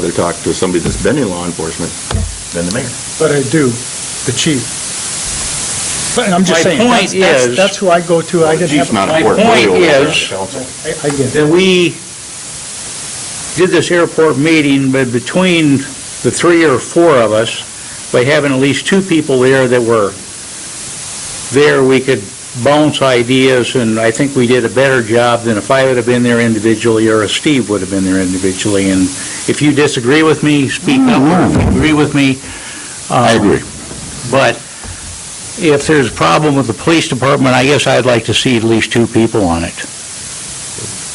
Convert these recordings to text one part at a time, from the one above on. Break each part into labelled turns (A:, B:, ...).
A: rather talk to somebody that's been in law enforcement than the mayor.
B: but I do, the chief. But I'm just
C: My
B: saying,
C: point
B: that's, that's-
C: is-
B: that's who I go to, I
A: The
B: didn't
A: chief's
B: have,
A: not
B: I
C: My
A: important. We're
C: point
A: the elected
C: is-
A: council.
B: I get it.
C: that we did this airport meeting, but between the three or four of us, by having at least two people there that were there, we could bounce ideas, and I think we did a better job than if I would have been there individually, or if Steve would have been there individually. And if you disagree with me, speak up, or if you
A: Mm-hmm.
C: agree with me. I agree. But if there's a problem with the police department, I guess I'd like to see at least two people on it.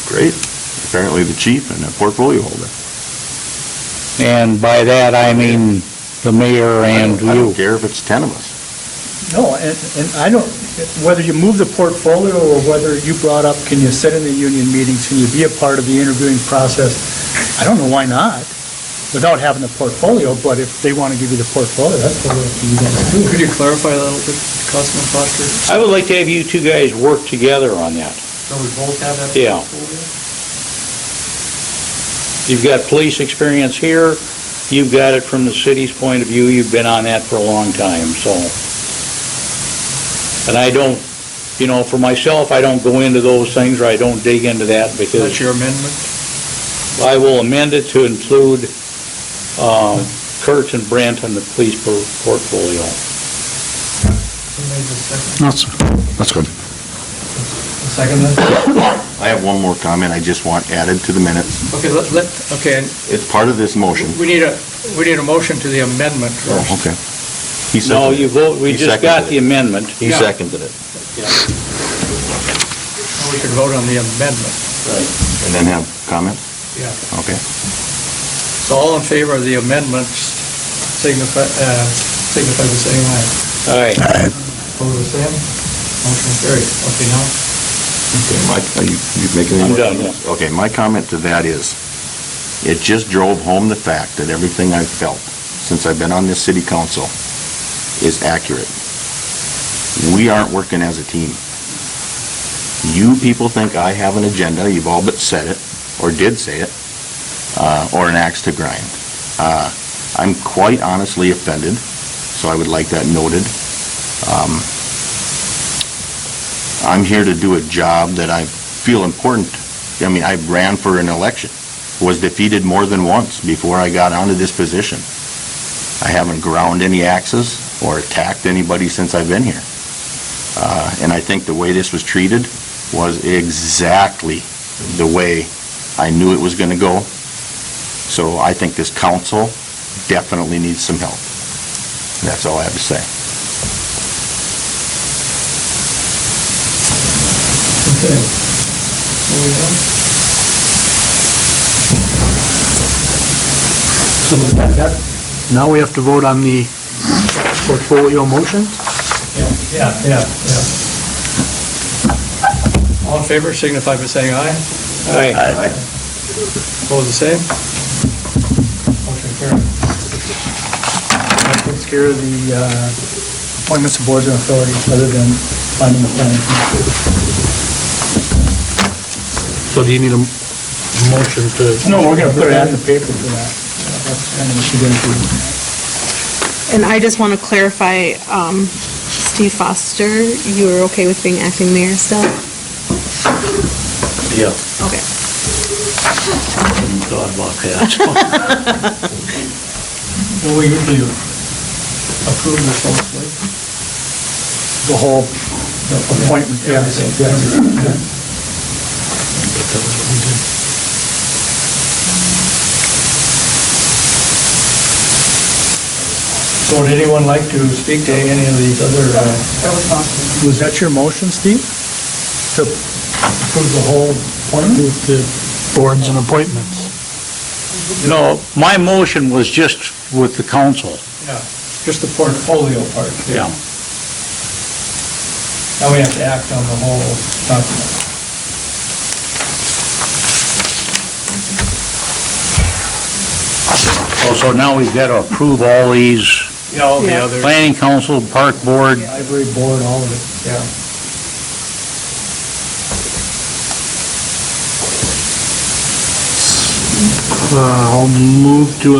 A: Great. Apparently the chief and a portfolio holder.
C: And by that, I mean the mayor and
A: I don't
C: you.
A: care if it's 10 of us.
B: No, and, and I don't, whether you move the portfolio or whether you brought up, can you sit in the union meetings, can you be a part of the interviewing process? I don't know why not, without having the portfolio, but if they want to give you the portfolio, that's what you guys do.
D: Could you clarify that a little bit, Councilman Foster?
C: I would like to have you two guys work together on that.
D: So we both have that?
C: Yeah. You've got police experience here, you've got it from the city's point of view, you've been on that for a long time, so. And I don't, you know, for myself, I don't go into those things, or I don't dig into that,
D: That's
C: because
D: your amendment?
C: I will amend it to include um, Kurtz and Brent on the police por- portfolio.
E: That's, that's good.
D: Second then?
A: I have one more comment I just want added to the minutes.
D: Okay, let, let, okay, and
A: It's part of this motion.
D: we need a, we need a motion to the amendment first.
A: okay. He
C: No,
A: seconded
C: you
A: it.
C: vote,
A: He
C: we just got
A: seconded
C: the
A: it.
C: amendment.
A: He
D: yeah.
A: seconded it.
D: We should vote on the amendment.
A: And then have comment?
D: Yeah.
A: Okay.
D: So all in favor of the amendments, signify, uh, signify the same way.
C: All right,
D: Opposed, the same? Motion carried. Okay, now?
A: Okay, Mike, are you you making any
C: I'm
A: more
C: done,
A: comments? Okay, my comment to that is, it just drove home the fact that everything I've felt since I've been on this city council is accurate. We aren't working as a team. You people think I have an agenda, you've all but said it, or did say it, uh, or an axe to grind. Uh, I'm quite honestly offended, so I would like that noted. Um, I'm here to do a job that I feel important. I mean, I ran for an election, was defeated more than once before I got onto this position. I haven't ground any axes or attacked anybody since I've been here. Uh, And I think the way this was treated was exactly the way I knew it was going to go. So I think this council definitely needs some help. That's all I have to say.
D: Okay. Moving on.
E: So that, that- now we have to vote on the portfolio motion?
D: Yeah, yeah, yeah. All in favor, signify by saying aye.
C: all right.
D: Opposed, the same? Motion carried.
B: That takes care of the uh, appointments of boards and authorities, other than finding the planning.
E: So do you need a m- motion to?
B: No, we're gonna put it out in the paper for that. That's kind of what you're gonna do.
F: And I just want to clarify, um, Steve Foster, you are okay with being acting mayor still?
C: Yeah.
F: Okay.
C: Thought about that.
D: Well, we usually approve this mostly.
B: the whole appointment, yeah.
D: So would anyone like to speak to any of these other, uh,
B: Was that your motion, Steve? To approve the whole appointment?
E: Boards and appointments.
C: No, my motion was just with the council.
D: just the portfolio part?
C: Yeah.
D: Now we have to act on the whole document.
C: Oh, So now we've got to approve all these,
D: Yeah, all
F: the Yeah.
D: others.
C: planning council, park board,
B: Library board, all of it.
D: Yeah. Uh, I'll move to